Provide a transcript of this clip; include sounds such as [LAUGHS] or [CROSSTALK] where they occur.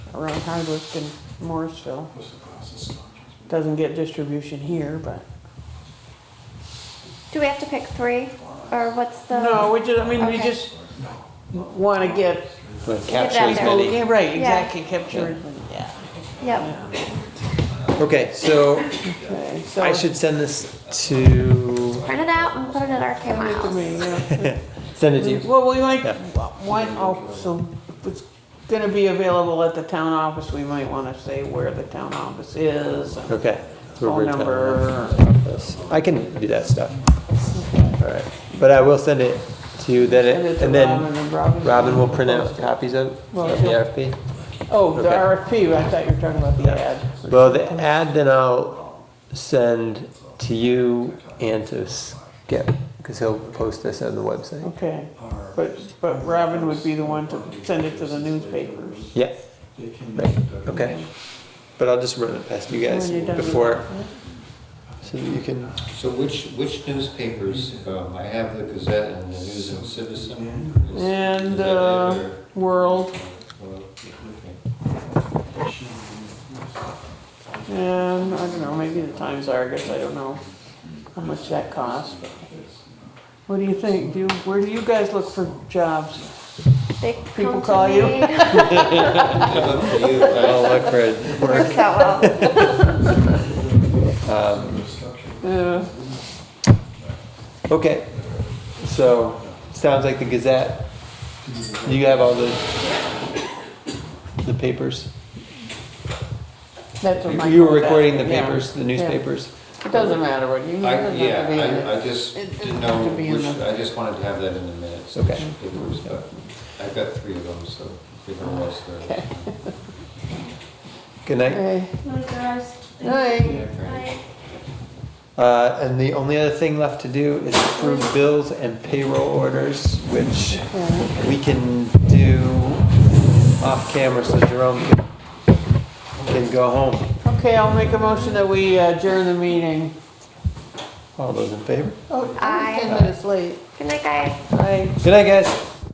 around Hardwick and Morrisville. What's the process? Doesn't get distribution here, but. Do we have to pick three, or what's the? No, we just, I mean, we Okay. just wanna get. Yeah, Capture as there. many. Yeah, Right, Yeah. exactly, capture, yeah. Yep. Okay, so Okay, so- I should send this to, Print it out and put it at RK Send it to me, Miles. [LAUGHS] yeah. send it to you. Well, we might, Yeah. why, oh, so if it's gonna be available at the town office, we might wanna say where the town office is. and Okay. Phone number. I can do that stuff. All right, but I will send it to you then, Send it it- to and Robin then and Robin. Robin will print out copies of, Well, of the she'll- RFP. Oh, the okay. RFP, I thought you were talking about the ad. Well, the ad then I'll send to you and to Skip, because he'll post this on the website. Okay, but, but Robin would be the one to send it to the newspapers. Yeah, right, okay. But I'll just run it past you guys When you're done with before, that. so that you can, So which, which newspapers, um, I have the Gazette and the News and Citizen. Is- And, is that uh, it, or- World, well, okay. and, I don't know, maybe the Times Argus, I don't know how much that costs. but- What do you think? Do you, where do you guys look for jobs? They People come to call you? me. Good luck for you. I'll I- look for [LAUGHS] it. Works out well. Uh, Okay, so, sounds like the Gazette, you have all the, the papers? That's what Oh, my. You were phone recording the said, yeah. papers, the newspapers? Yeah. It doesn't matter what you. doesn't I, have to be in yeah, it. I, I just It doesn't didn't have know to be in which, the- I just wanted to have that in the minutes. Okay. which Papers, but I've got three of them, so figure out what's there. Okay. Good night. Okay. Like guys. Hey, Yeah, great. Like, Uh, and the only other thing left to do is approve bills and payroll orders, which yeah, we can do off camera so Jerome can, can go home. okay, I'll make a motion that we adjourn the meeting. All those in favor? Oh, Aye. Ten minutes late. Good night, guys. Aye. Good night, guys.